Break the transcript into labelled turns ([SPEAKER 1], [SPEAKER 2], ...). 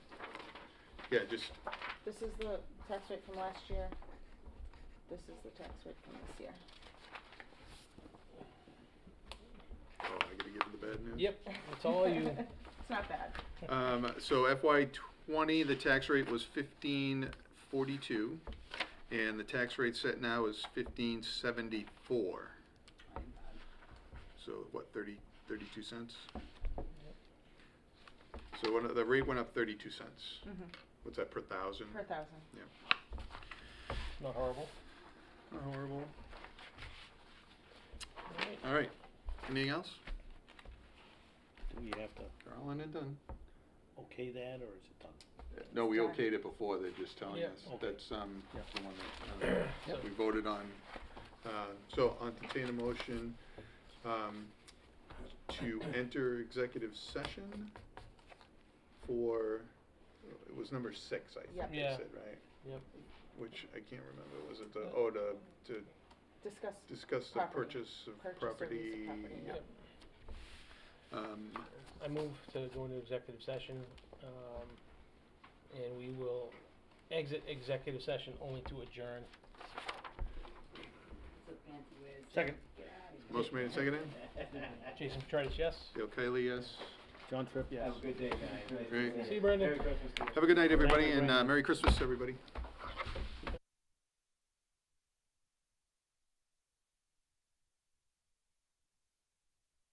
[SPEAKER 1] Yeah, just, oh,
[SPEAKER 2] This is the tax rate from last year. This is the tax rate from this year.
[SPEAKER 1] oh, I gotta give you the bad news.
[SPEAKER 3] Yep, it's all you.
[SPEAKER 2] It's not bad.
[SPEAKER 1] Um, so FY twenty, the tax rate was fifteen forty-two, and the tax rate set now is fifteen seventy-four. So what, thirty, thirty-two cents? So when, the rate went up thirty-two cents. What's that, per thousand?
[SPEAKER 2] Mm. Per thousand.
[SPEAKER 1] Yeah,
[SPEAKER 3] Not horrible.
[SPEAKER 1] not horrible.
[SPEAKER 3] Alright.
[SPEAKER 1] All right, anything else?
[SPEAKER 4] Do we have to
[SPEAKER 1] Carl, and done.
[SPEAKER 4] okay that, or is it done?
[SPEAKER 1] No, we
[SPEAKER 2] Sorry.
[SPEAKER 1] okayed it before, they're just telling
[SPEAKER 3] Yeah.
[SPEAKER 1] us,
[SPEAKER 4] Okay.
[SPEAKER 1] that's, um,
[SPEAKER 4] Yeah.
[SPEAKER 1] the one that, uh,
[SPEAKER 3] Yep.
[SPEAKER 1] we voted on. Uh, so I'll entertain a motion, um, to enter executive session for, it was number six, I
[SPEAKER 2] Yep.
[SPEAKER 1] think they
[SPEAKER 3] Yeah.
[SPEAKER 1] said, right?
[SPEAKER 3] Yep.
[SPEAKER 1] Which I can't remember, was it the, oh, to, to
[SPEAKER 2] Discuss.
[SPEAKER 1] discuss the
[SPEAKER 2] Property.
[SPEAKER 1] purchase of
[SPEAKER 2] Purchase or lease of
[SPEAKER 1] property?
[SPEAKER 2] property,
[SPEAKER 1] yeah.
[SPEAKER 3] Yep.
[SPEAKER 1] Um,
[SPEAKER 3] I move to go into executive session, um, and we will exit executive session only to adjourn.
[SPEAKER 4] Second.
[SPEAKER 1] motion made and seconded,
[SPEAKER 3] Jason Petrides, yes?
[SPEAKER 1] Dale Kiley, yes.
[SPEAKER 4] John Tripp, yes.
[SPEAKER 5] Have a good day, guys. Nice to meet
[SPEAKER 1] Great.
[SPEAKER 5] you.
[SPEAKER 3] See you, Brendan.
[SPEAKER 5] Merry Christmas to you.
[SPEAKER 1] Have a good night, everybody,
[SPEAKER 4] night,
[SPEAKER 1] and, uh,
[SPEAKER 4] Brandon.
[SPEAKER 1] Merry Christmas, everybody.